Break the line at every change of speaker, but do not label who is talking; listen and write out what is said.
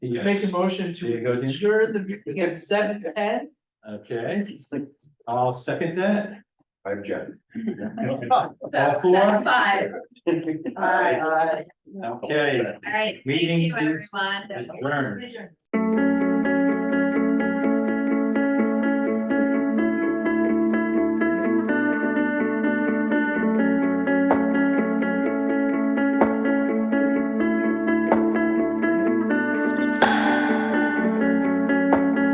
Make a
Yes.
motion
There you go,
to
Dan.
adjourn the meeting at seven ten.
Okay, I'll second that.
I'm Jen.
All four?
Five,
Aye. Okay,
all right. Thank
Meeting
you,
is
everyone.
adjourned.